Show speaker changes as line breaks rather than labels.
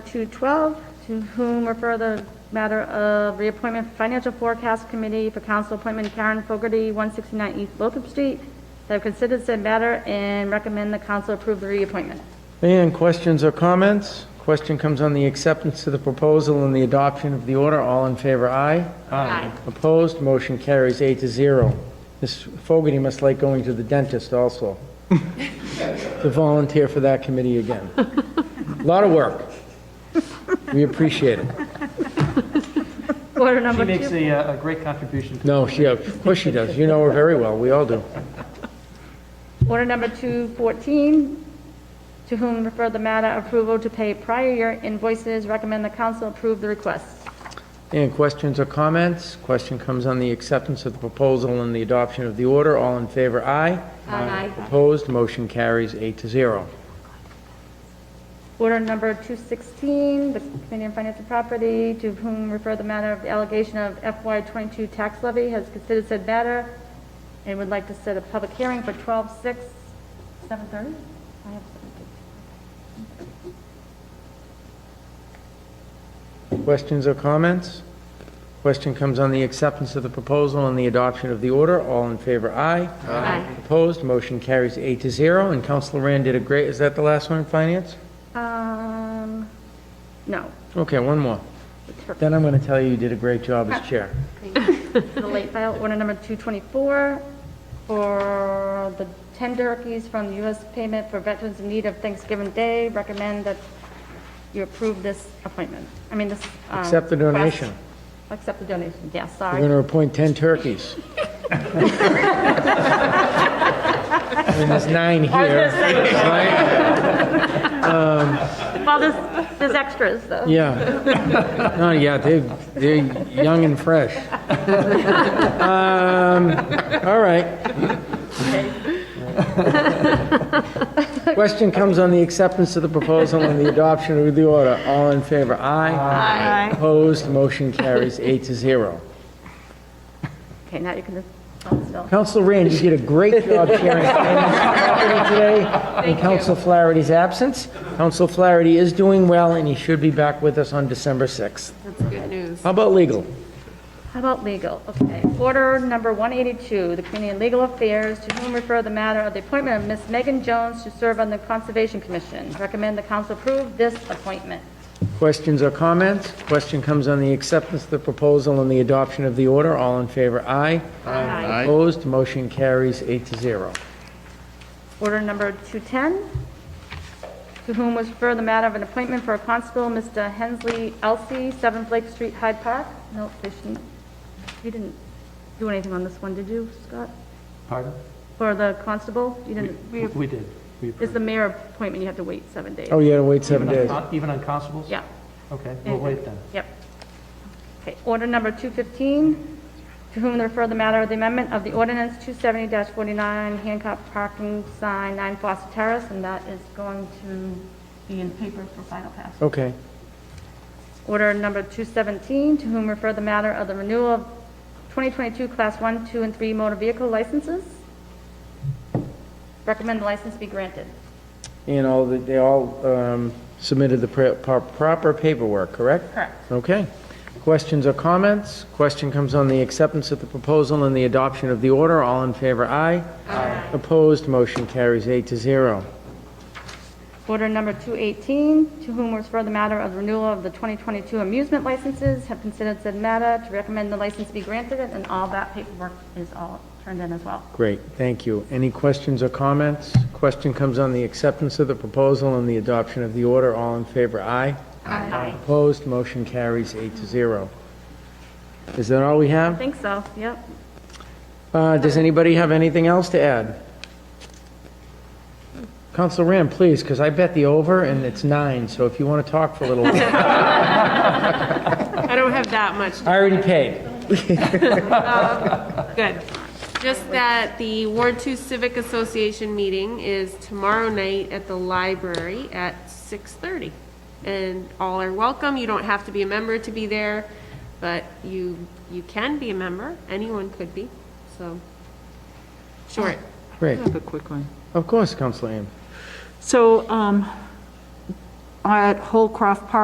212, to whom refer the matter of reappointment for Financial Forecast Committee for council appointment Karen Fogarty, 169 East Lothrop Street. They have considered said matter and recommend the council approve the reappointment.
Leanne, questions or comments? Question comes on the acceptance of the proposal and the adoption of the order. All in favor, aye?
Aye.
Opposed, motion carries eight to zero. Ms. Fogarty must like going to the dentist also, to volunteer for that committee again. Lot of work. We appreciate it.
Order
She
number two.
makes a, uh, a great contribution.
No, she, of course she does. You know her very well. We all do.
Order number 214, to whom refer the matter approval to pay prior year invoices, recommend the council approve the request.
And questions or comments? Question comes on the acceptance of the proposal and the adoption of the order. All in favor, aye?
Aye.
Opposed, motion carries eight to zero.
Order number 216, the Committee on Finance and Property, to whom refer the matter of the allegation of FY '22 tax levy, has considered said matter and would like to set a public hearing for 12/6, 7:30? I have 7:30.
Questions or comments? Question comes on the acceptance of the proposal and the adoption of the order. All in favor, aye.
Aye.
Opposed, motion carries eight to zero. And Counselor Rand did a great, is that the last one in finance?
Um, no,
Okay, one more.
it's her-
Then I'm going to tell you you did a great job as chair.
the late file, order number 224, for the 10 turkeys from the U.S. payment for veterans in need of Thanksgiving Day, recommend that you approve this appointment, I mean, this. um,
Accept the donation.
request. Accept the donation, yes,
We're
sorry.
going to appoint 10 turkeys. I mean, there's nine here, right?
Well, there's, there's extras, though.
Yeah. No, yeah, they, they're young and fresh. Um, all right. Question comes on the acceptance of the proposal and the adoption of the order. All in favor, aye? Aye. Opposed, motion carries eight to zero.
Okay, now you can just, hold still.
Counsel Rand, you did a great job chairing finance today in Counsel Flaherty's absence. Counsel Flaherty is doing well, and he should be back with us on December 6th.
That's good news.
How about legal?
How about legal? Okay. Order number 182, the Committee on Legal Affairs, to whom refer the matter of the appointment of Ms. Megan Jones to serve on the Conservation Commission. Recommend the council approve this appointment.
Questions or comments? Question comes on the acceptance of the proposal and the adoption of the order. All in favor, aye.
Aye.
Opposed, motion carries eight to zero.
Order number 210, to whom was referred the matter of an appointment for a constable, Mr. Hensley Elsie, 7 Blake Street, Hyde Park. No, they shouldn't, you didn't do anything on this one, did you, Scott?
Pardon?
For the constable? You didn't,
We we did. We
it's
approved.
the mayor appointment, you have to wait seven days.
Oh, you had to wait seven
Even on
days.
con- Even on constables?
Yeah.
Okay, we'll wait then.
Yep. Okay, order number 215, to whom to refer the matter of the amendment of the ordinance 270-49 Hancock Parking Sign 9 Foster Terrace, and that is going to be in paper for final pass.
Okay.
Order number 217, to whom refer the matter of the renewal of 2022 Class 1, 2, and 3 motor vehicle licenses. Recommend the license be granted.
And all, the- they all um, submitted the pre- pro- proper paperwork, correct?
Correct.
Okay. Questions or comments? Question comes on the acceptance of the proposal and the adoption of the order. All in favor, aye. Aye. Opposed, motion carries eight to zero.
Order number 218, to whom was for the matter of renewal of the 2022 amusement licenses, have considered said matter, to recommend the license be granted, and all that paperwork is all turned in as well.
Great, thank you. Any questions or comments? Question comes on the acceptance of the proposal and the adoption of the order. All in favor, aye.
I
Opposed, motion carries eight to zero. Is that all we have?
think so, yep.
Uh, Does anybody have anything else to add? Counsel Rand, please, because I bet the over, and it's nine, so if you want to talk for a little while.
I don't have that much.
I already paid.
Good. Just that the Ward Two Civic Association meeting is tomorrow night at the library at six thirty. And all are welcome. You don't have to be a member to be there, but you, you can be a member. Anyone could be, so. Short.
Great.
I have a quick one.
Of course, Counsel Rand.
So um, at Holcroft Park,